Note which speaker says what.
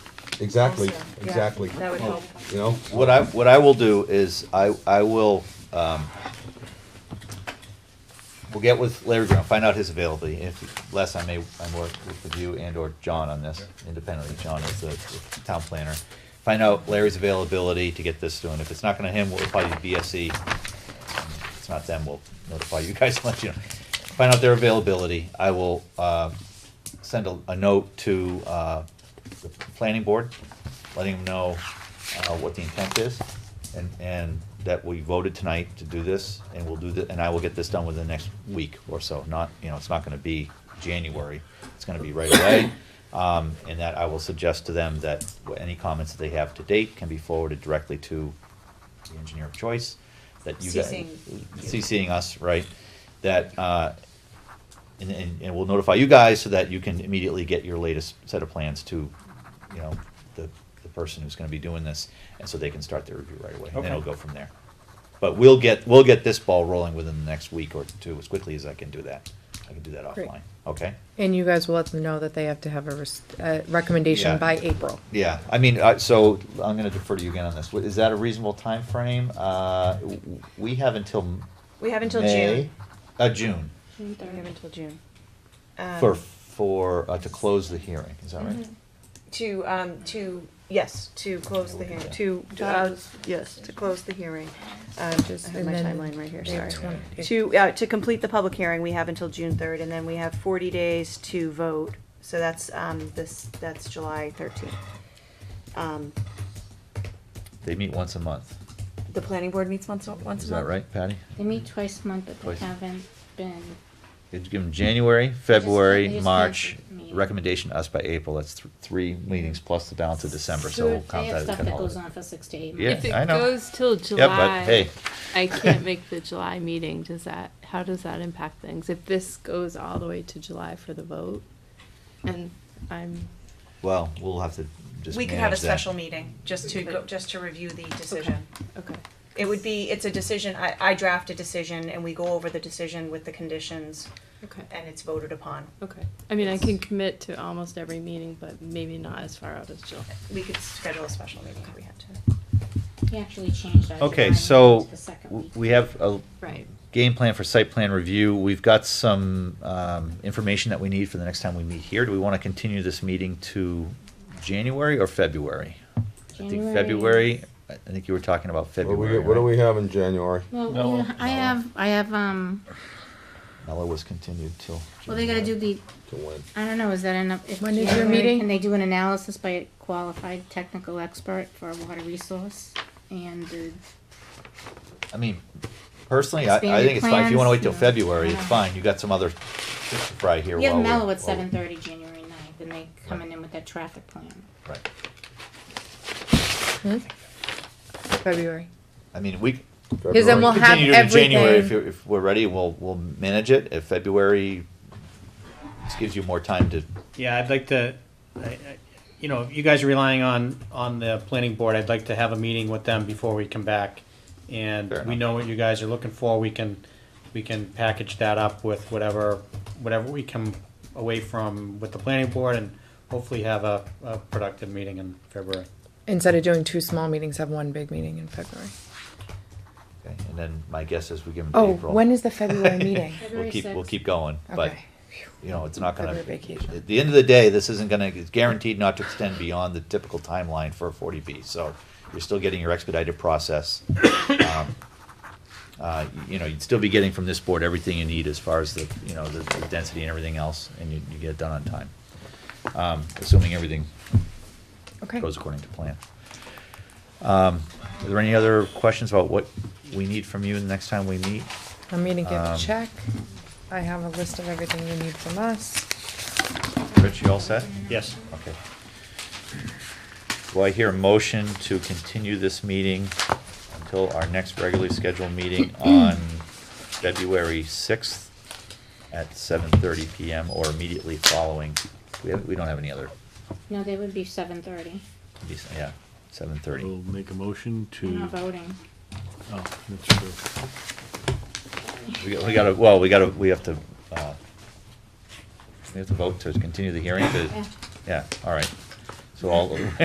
Speaker 1: Exactly,
Speaker 2: also. Yeah,
Speaker 1: exactly. Oh,
Speaker 2: That would help.
Speaker 1: You know,
Speaker 3: What I, what I will do is, I, I will, um, we'll get with Larry Brown, find out his availability, if, Les, I may, I work with you and or John on this, independently, John is the the town planner. Find out Larry's availability to get this done, if it's not gonna him, we'll apply to BSC, If it's not them, we'll notify you guys, and let you know. Find out their availability, I will, uh, send a, a note to, uh, the planning board, letting them know, uh, what the intent is, and, and that we voted tonight to do this, and we'll do the, and I will get this done within the next week or so, not, you know, it's not gonna be January, it's gonna be right away. Um, and that I will suggest to them that wh- any comments that they have to date can be forwarded directly to the engineer of choice, that you guys.
Speaker 2: CCing you.
Speaker 3: CCing us, right, that, uh, and, and, and we'll notify you guys so that you can immediately get your latest set of plans to, you know, the, the person who's gonna be doing this, and so they can start their review right away, and then it'll
Speaker 4: Okay.
Speaker 3: go from there. But we'll get, we'll get this ball rolling within the next week or two, as quickly as I can do that, I can do that
Speaker 5: Great.
Speaker 3: offline, okay?
Speaker 5: And you guys will let them know that they have to have a res- uh, recommendation
Speaker 3: Yeah.
Speaker 5: by April.
Speaker 3: Yeah, I mean, I, so, I'm gonna defer to you again on this, is that a reasonable timeframe? Uh, w- w- we have until May?
Speaker 2: We have until June.
Speaker 3: Uh, June.
Speaker 2: We have until June. Um,
Speaker 3: For, for, uh, to close the hearing, is that right?
Speaker 2: Mhm. To, um, to, yes, to close the hearing, to, to, uh, yes, to close the hearing. Um, I
Speaker 5: Just-
Speaker 2: have
Speaker 5: and
Speaker 2: my
Speaker 5: then
Speaker 2: timeline right here,
Speaker 5: they have
Speaker 2: sorry.
Speaker 5: 20
Speaker 2: To, uh, to complete the public hearing, we have until June third, and then we have forty days to vote. So that's, um, this, that's July thirteenth. Um,
Speaker 3: They meet once a month,
Speaker 2: the planning board meets once, a- once a month.
Speaker 3: is that right, Patty?
Speaker 6: They meet twice a month, but
Speaker 3: Twice.
Speaker 6: they haven't been.
Speaker 3: You'd give them January, February,
Speaker 6: they just
Speaker 3: March,
Speaker 6: canceled the meeting.
Speaker 3: recommendation to us by April, that's th- three meetings plus the balance of December, so
Speaker 6: They
Speaker 3: we'll
Speaker 6: have
Speaker 3: count that as a
Speaker 6: Stuff that goes
Speaker 3: holiday.
Speaker 6: on for six to eight
Speaker 3: Yeah,
Speaker 6: months.
Speaker 7: If it
Speaker 3: I know.
Speaker 7: goes till July,
Speaker 3: Yeah, but hey.
Speaker 7: I can't make the July meeting. Does that, how does that impact things? If this goes all the way to July for the vote, and I'm,
Speaker 3: Well, we'll have to just
Speaker 2: We could have a
Speaker 3: manage that.
Speaker 2: special meeting, just to go, just to review the decision.
Speaker 7: okay.
Speaker 2: It would be, it's a decision, I, I draft a decision and we go over the decision with the conditions
Speaker 7: Okay,
Speaker 2: and it's voted upon.
Speaker 7: okay. I mean, I can commit to almost every meeting, but maybe not as far out as July.
Speaker 2: We could schedule a special meeting if we had to.
Speaker 6: He actually changed our July
Speaker 3: Okay,
Speaker 6: meeting
Speaker 3: so,
Speaker 6: to the second
Speaker 3: w-
Speaker 6: week.
Speaker 3: we have a
Speaker 7: Right.
Speaker 3: game plan for site plan review, we've got some, um, information that we need for the next time we meet here, do we wanna continue this meeting to January or February? I think
Speaker 6: January.
Speaker 3: February, I I think you were talking about
Speaker 1: what do
Speaker 3: February,
Speaker 1: we, what do
Speaker 3: right?
Speaker 1: we have in January?
Speaker 6: Well,
Speaker 4: No,
Speaker 6: yeah, I
Speaker 4: no.
Speaker 6: have, I have, um,
Speaker 3: Mello was continued till.
Speaker 6: well, they gotta do
Speaker 3: January.
Speaker 6: the,
Speaker 1: To win.
Speaker 6: I don't know, is that enough? If
Speaker 5: When is your
Speaker 6: January,
Speaker 5: meeting?
Speaker 6: Can they do an analysis by a qualified technical expert for a water resource? And the
Speaker 3: I mean, personally, I, I
Speaker 6: Expanded
Speaker 3: think it's fine, if you wanna wait till
Speaker 6: plans, no.
Speaker 3: February, it's fine, you got some other fish to fry here
Speaker 6: we have
Speaker 3: while we're-
Speaker 6: Mellow at
Speaker 3: while-
Speaker 6: seven thirty, January ninth, and they coming in with their traffic plan.
Speaker 3: Right,
Speaker 5: Hmm? February.
Speaker 3: I mean, we,
Speaker 5: Because then we'll
Speaker 1: February.
Speaker 5: have
Speaker 3: continue to January if,
Speaker 5: everything.
Speaker 3: you're- if we're ready, we'll, we'll manage it, if February, this gives you more time to
Speaker 4: Yeah, I'd like to, I- I- you know, you guys are relying on, on the planning board, I'd like to have a meeting with them before we come back. And
Speaker 3: Fair
Speaker 4: we
Speaker 3: enough.
Speaker 4: know what you guys are looking for, we can, we can package that up with whatever, whatever we come away from with the planning board and hopefully have a, a productive meeting in February.
Speaker 5: Instead of doing two small meetings, have one big meeting in February.
Speaker 3: Okay, and then my guess is we give them
Speaker 5: Oh,
Speaker 3: April.
Speaker 5: when is the February meeting?
Speaker 3: We'll
Speaker 6: February
Speaker 3: keep, we'll
Speaker 6: sixth.
Speaker 3: keep going, but,
Speaker 5: Okay.
Speaker 3: you know, it's not gonna,
Speaker 5: February vacation.
Speaker 3: at the end of the day, this isn't gonna, it's guaranteed not to extend beyond the typical timeline for a forty B, so you're still getting your expedited process. Um, Uh, you- you know, you'd still be getting from this board everything you need as far as the, you know, the, the density and everything else, and you, you get it done on time. Um, assuming everything
Speaker 5: Okay.
Speaker 3: goes according to plan. Um, are there any other questions about what we need from you the next time we meet?
Speaker 5: I'm gonna give a
Speaker 3: Um,
Speaker 5: check. I have a list of everything you need from us.
Speaker 3: Rich, you all set?
Speaker 4: Yes.
Speaker 3: Okay. Do I hear a motion to continue this meeting until our next regularly scheduled meeting on February sixth at seven thirty PM or immediately following? We have, we don't have any other,
Speaker 6: No, they would be seven thirty.
Speaker 3: yeah, seven
Speaker 8: We'll
Speaker 3: thirty.
Speaker 8: make a motion
Speaker 6: We're
Speaker 8: to,
Speaker 6: not voting.
Speaker 8: oh, that's true.
Speaker 3: We got- we gotta, well, we gotta, we have to, uh,
Speaker 6: É.
Speaker 3: we have to vote to continue the hearing to,
Speaker 6: Yeah.
Speaker 3: yeah, all right. So all,